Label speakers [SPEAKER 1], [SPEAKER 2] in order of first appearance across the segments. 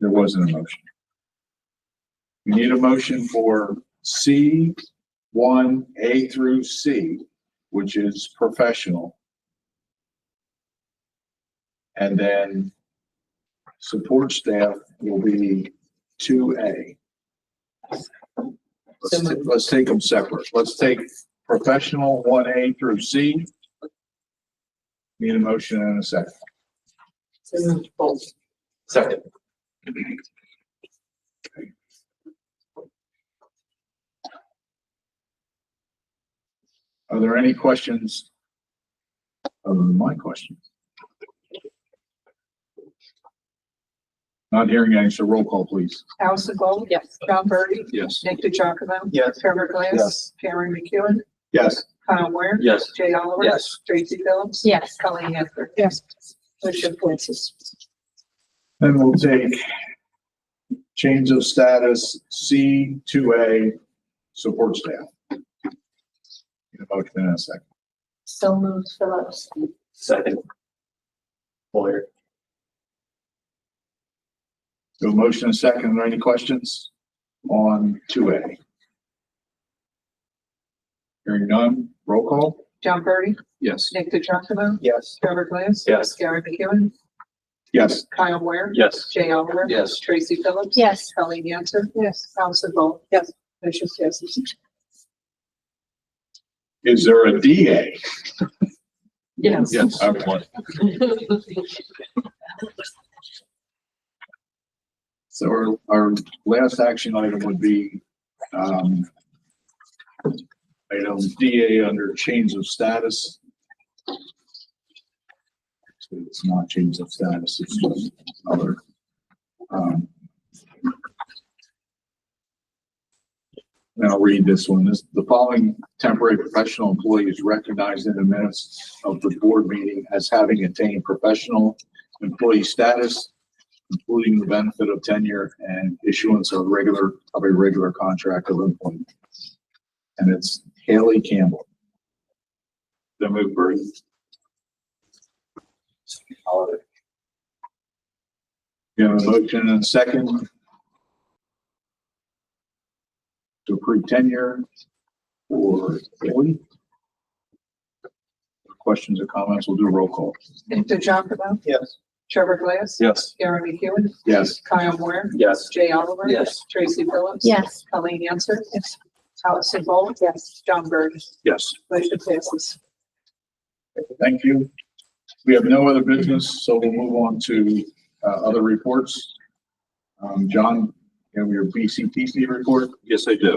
[SPEAKER 1] There wasn't a motion. We need a motion for C one, A through C, which is professional. And then support staff will be two A. Let's, ta- let's take them separate. Let's take professional one A through C. Need a motion and a second.
[SPEAKER 2] Second.
[SPEAKER 1] Are there any questions? Other than my questions? Not hearing any, so roll call, please.
[SPEAKER 3] Allison Gold. Yes. John Burry.
[SPEAKER 1] Yes.
[SPEAKER 3] Nick DeJonge.
[SPEAKER 2] Yes.
[SPEAKER 3] Trevor Glass.
[SPEAKER 2] Yes.
[SPEAKER 3] Cameron McEwen.
[SPEAKER 1] Yes.
[SPEAKER 3] Kyle Moore.
[SPEAKER 2] Yes.
[SPEAKER 3] Jay Oliver.
[SPEAKER 2] Yes.
[SPEAKER 3] Tracy Phillips.
[SPEAKER 4] Yes.
[SPEAKER 3] Colleen Henson. Yes. Motion passes.
[SPEAKER 1] Then we'll take change of status, C two A, support staff. Need a motion in a second.
[SPEAKER 4] So moved Phillips.
[SPEAKER 2] Second. Lawyer.
[SPEAKER 1] So motion and a second, are there any questions on two A? Hearing none, roll call?
[SPEAKER 3] John Burry.
[SPEAKER 1] Yes.
[SPEAKER 3] Nick DeJonge.
[SPEAKER 2] Yes.
[SPEAKER 3] Trevor Glass.
[SPEAKER 2] Yes.
[SPEAKER 3] Cameron McEwen.
[SPEAKER 1] Yes.
[SPEAKER 3] Kyle Moore.
[SPEAKER 2] Yes.
[SPEAKER 3] Jay Oliver.
[SPEAKER 2] Yes.
[SPEAKER 3] Tracy Phillips.
[SPEAKER 4] Yes.
[SPEAKER 3] Colleen Henson. Yes. Allison Gold. Yes. Motion passes.
[SPEAKER 1] Is there a DA?
[SPEAKER 3] Yes.
[SPEAKER 1] Yes. So our, our last action item would be, um, item DA under change of status. So it's not change of status, it's just other. um, Now read this one. This, the following temporary professional employee is recognized in the minutes of the board meeting as having attained professional employee status including the benefit of tenure and issuance of regular, of a regular contract of employment. And it's Haley Campbell. The move, Bertie. You have a motion and a second to approve tenure for Haley? Questions or comments? We'll do a roll call.
[SPEAKER 3] Nick DeJonge.
[SPEAKER 2] Yes.
[SPEAKER 3] Trevor Glass.
[SPEAKER 2] Yes.
[SPEAKER 3] Cameron McEwen.
[SPEAKER 1] Yes.
[SPEAKER 3] Kyle Moore.
[SPEAKER 2] Yes.
[SPEAKER 3] Jay Oliver.
[SPEAKER 2] Yes.
[SPEAKER 3] Tracy Phillips.
[SPEAKER 4] Yes.
[SPEAKER 3] Colleen Henson. Yes. Allison Gold. Yes. John Burry.
[SPEAKER 1] Yes.
[SPEAKER 3] Motion passes.
[SPEAKER 1] Thank you. We have no other business, so we'll move on to uh, other reports. Um, John, you have your BCTC report?
[SPEAKER 5] Yes, I do.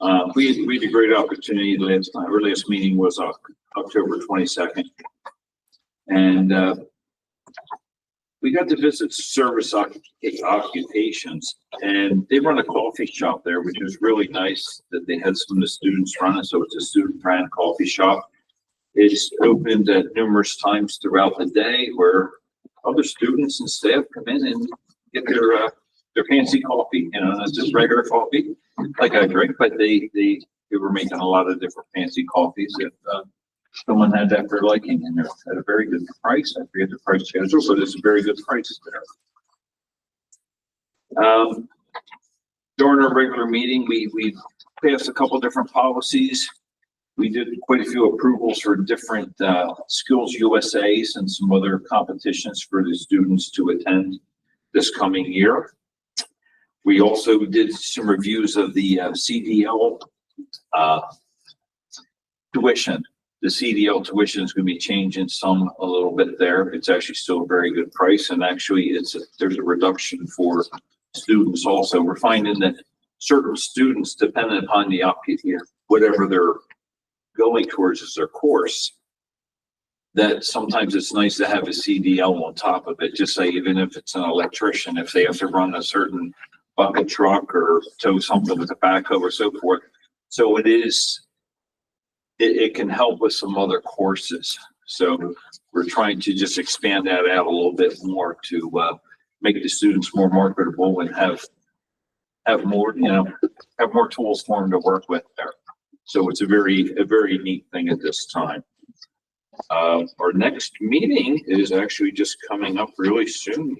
[SPEAKER 5] Uh, we, we had a great opportunity last, time. our last meeting was Oc- October twenty-second. And, uh, we got to visit service occup- occupations and they run a coffee shop there, which is really nice that they had some of the students run it. So it's a student run coffee shop. It's opened at numerous times throughout the day where other students and staff come in and get their, uh, their fancy coffee, you know, and it's just regular coffee, like I drink, but they, they, they were making a lot of different fancy coffees if, uh, someone had that for liking and they're at a very good price. I forget the price schedule, but it's a very good price there. Um, during our regular meeting, we, we passed a couple different policies. We did quite a few approvals for different, uh, Skills USA's and some other competitions for the students to attend this coming year. We also did some reviews of the uh, CDL uh, tuition. The CDL tuition is going to be changing some a little bit there. It's actually still a very good price and actually it's, a- there's a reduction for students also. We're finding that certain students, depending upon the, op- whatever they're going towards as their course, that sometimes it's nice to have a CDL on top of it, just say even if it's an electrician, if they have to run a certain bucket truck or tow something with a backhoe or so forth. So it is, it, it can help with some other courses. So we're trying to just expand that out a little bit more to, uh, make the students more marketable and have, have more, you know, have more tools for them to work with there. So it's a very, a very neat thing at this time. Uh, our next meeting is actually just coming up really soon